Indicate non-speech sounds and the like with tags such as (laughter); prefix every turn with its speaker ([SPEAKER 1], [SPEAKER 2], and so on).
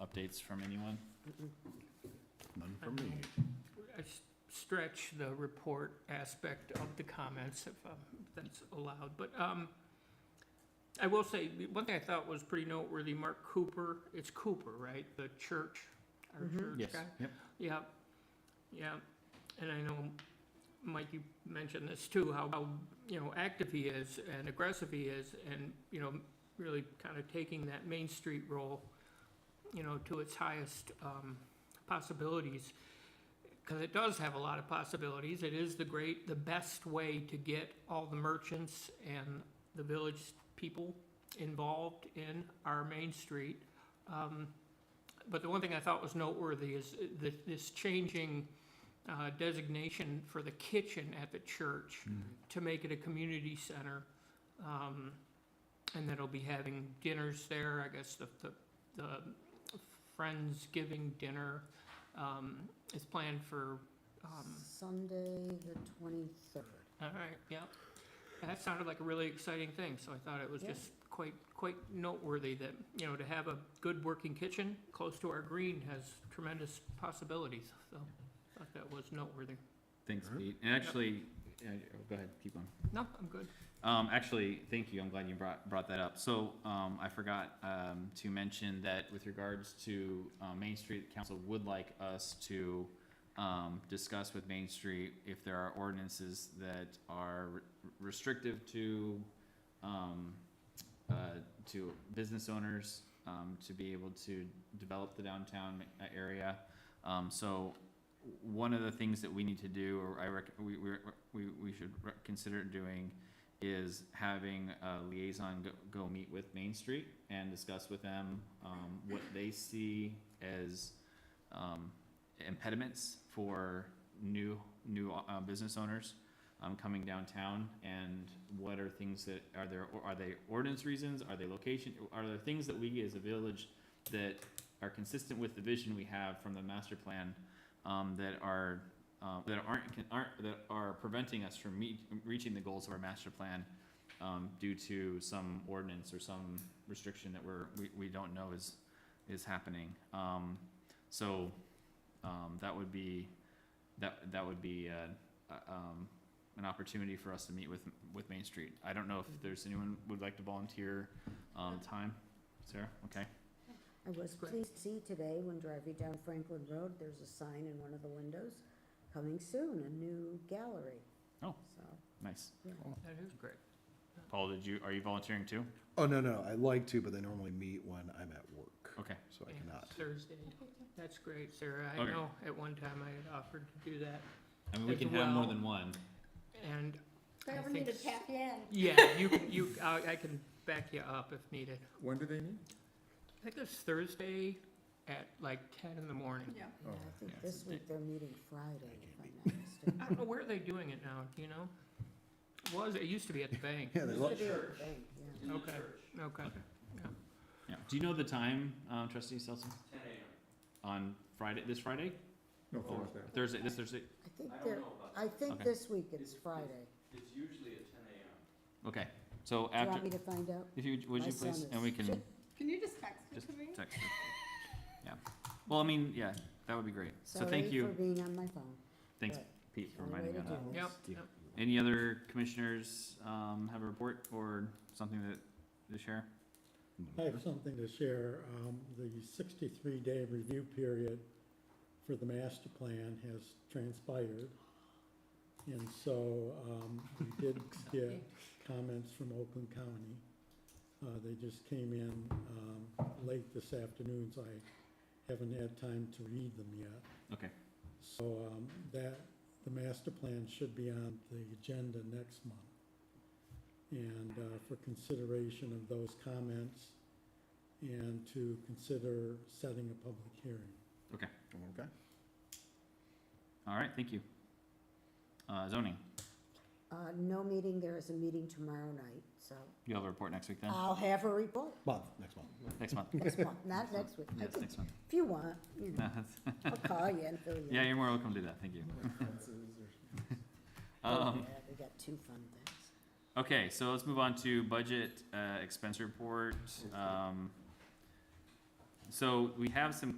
[SPEAKER 1] updates from anyone?
[SPEAKER 2] None for me.
[SPEAKER 3] I s- stretch the report aspect of the comments if um, that's allowed, but um, I will say, the one thing I thought was pretty noteworthy, Mark Cooper, it's Cooper, right? The church, our church
[SPEAKER 1] Yes,
[SPEAKER 3] guy?
[SPEAKER 1] yep.
[SPEAKER 3] Yeah, yeah, and I know, Mike, you mentioned this too, how, how, you know, active he is and aggressive he is, and, you know, really kind of taking that Main Street role, you know, to its highest um, possibilities, because it does have a lot of possibilities. It is the great, the best way to get all the merchants and the village people involved in our Main Street. Um, But the one thing I thought was noteworthy is th- this changing uh, designation for the kitchen at the church to make it a community center. um, And that'll be having dinners there, I guess the, the, the Friendsgiving dinner um, is planned for, um,
[SPEAKER 4] Sunday, the twenty-third.
[SPEAKER 3] all right, yeah. And That sounded like a really exciting thing, so I thought it was
[SPEAKER 4] Yeah.
[SPEAKER 3] just quite, quite noteworthy that, you know, to have a good working kitchen close to our green has tremendous possibilities, so I thought that was noteworthy.
[SPEAKER 1] Thanks,
[SPEAKER 2] Alright.
[SPEAKER 1] Pete. And actually, uh, go ahead, keep on.
[SPEAKER 3] No, I'm good.
[SPEAKER 1] Um, actually, thank you. I'm glad you brought, brought that up. So, um, I forgot, um, to mention that with regards to, uh, Main Street, council would like us to, um, discuss with Main Street if there are ordinances that are re- restrictive to, um, uh, to business owners, um, to be able to develop the downtown uh, area. Um, so, w- one of the things that we need to do, or I rec- we, we, we, we should re- consider doing is having a liaison go, go meet with Main Street and discuss with them, um, what they see as, um, impediments for new, new, uh, business owners, um, coming downtown, and what are things that, are there, are they ordinance reasons, are they location, are there things that we as a village that are consistent with the vision we have from the master plan, um, that are, um, that aren't, can- aren't, that are preventing us from meet, reaching the goals of our master plan, um, due to some ordinance or some restriction that we're, we, we don't know is, is happening. Um, so, um, that would be, that, that would be, uh, uh, um, an opportunity for us to meet with, with Main Street. I don't know if there's anyone would like to volunteer, um, time. Sarah, okay?
[SPEAKER 4] I was
[SPEAKER 3] Great.
[SPEAKER 4] pleased to see today when driving down Franklin Road, there's a sign in one of the windows, coming soon, a new gallery.
[SPEAKER 1] Oh.
[SPEAKER 4] So,
[SPEAKER 1] Nice.
[SPEAKER 3] That is great.
[SPEAKER 1] Paul, did you, are you volunteering too?
[SPEAKER 2] Oh, no, no, I like to, but they normally meet when I'm at work,
[SPEAKER 1] Okay.
[SPEAKER 2] so I
[SPEAKER 3] Yeah,
[SPEAKER 2] cannot.
[SPEAKER 3] Thursday. That's great, Sarah. I
[SPEAKER 1] Okay.
[SPEAKER 3] know at one time I had offered to do that,
[SPEAKER 1] I mean, we
[SPEAKER 3] As
[SPEAKER 1] can have more
[SPEAKER 3] well.
[SPEAKER 1] than one.
[SPEAKER 3] and I
[SPEAKER 5] They ever need to
[SPEAKER 3] think s-
[SPEAKER 5] tap you in.
[SPEAKER 3] yeah, you, can- you, I, I can back you up if needed.
[SPEAKER 6] When do they meet?
[SPEAKER 3] I think it's Thursday at like ten in the morning.
[SPEAKER 5] Yeah.
[SPEAKER 4] yeah,
[SPEAKER 6] Oh,
[SPEAKER 4] I think
[SPEAKER 1] yeah, it's
[SPEAKER 4] this
[SPEAKER 1] a
[SPEAKER 4] week they're meeting Friday, if I'm not
[SPEAKER 1] (laughs)
[SPEAKER 4] mistaken.
[SPEAKER 3] I don't know, where are they doing it now, do you know? Was, it used to be at
[SPEAKER 6] (laughs)
[SPEAKER 3] the bank.
[SPEAKER 2] Yeah, they love,
[SPEAKER 4] Could be a thing, yeah.
[SPEAKER 3] Okay, okay.
[SPEAKER 1] Yeah. Do you know the time, um, trustee Stetson? Ten AM. On Friday, this Friday?
[SPEAKER 6] No,
[SPEAKER 1] Or
[SPEAKER 6] Thursday.
[SPEAKER 1] Thursday, this Thursday?
[SPEAKER 4] I think they're, I think
[SPEAKER 1] Okay.
[SPEAKER 4] this week it's Friday.
[SPEAKER 1] Okay, so
[SPEAKER 4] Do you want
[SPEAKER 1] after,
[SPEAKER 4] me to find out?
[SPEAKER 1] if you, would
[SPEAKER 4] My
[SPEAKER 1] you
[SPEAKER 4] son
[SPEAKER 1] please, and we
[SPEAKER 4] is-
[SPEAKER 1] can
[SPEAKER 5] Can you just text it
[SPEAKER 1] Just
[SPEAKER 5] to me?
[SPEAKER 1] text. her. Yeah. Well, I mean, yeah, that would be great. So thank
[SPEAKER 4] Sorry
[SPEAKER 1] you.
[SPEAKER 4] for being on my phone.
[SPEAKER 1] Thanks,
[SPEAKER 4] but
[SPEAKER 1] Pete, for
[SPEAKER 4] only way
[SPEAKER 1] reminding me
[SPEAKER 4] to
[SPEAKER 1] on that.
[SPEAKER 6] Oh,
[SPEAKER 4] do it.
[SPEAKER 3] Yep,
[SPEAKER 2] Yeah.
[SPEAKER 3] yep.
[SPEAKER 1] Any other commissioners, um, have a report or something that, to share?
[SPEAKER 7] I have something to share. Um, the sixty-three day review period for the master plan has transpired. And so, um, we did get comments from Oakland County. Uh, they just came in, um, late this afternoon, so I haven't had time to read them yet.
[SPEAKER 1] Okay,
[SPEAKER 7] So, um, that, the master plan should be on the agenda next month. And, uh, for consideration of those comments and to consider setting a public hearing.
[SPEAKER 2] okay.
[SPEAKER 1] all right, thank you. Uh, zoning,
[SPEAKER 4] Uh, no meeting, there is a meeting tomorrow night, so
[SPEAKER 1] you'll have a report next week then?
[SPEAKER 4] I'll have a report
[SPEAKER 2] Month, next month.
[SPEAKER 1] Next month? (laughs)
[SPEAKER 4] next month, not next week. I
[SPEAKER 1] Yes,
[SPEAKER 4] can-
[SPEAKER 1] next month. (laughs)
[SPEAKER 4] If you want, you know, I'll call you and fill you in.
[SPEAKER 1] Yeah, you're more welcome to do that, thank you.
[SPEAKER 4] Oh,
[SPEAKER 1] (laughs) Um,
[SPEAKER 4] yeah, We got two fun things.
[SPEAKER 1] okay, so let's move on to budget, uh, expense report. Um, So we have some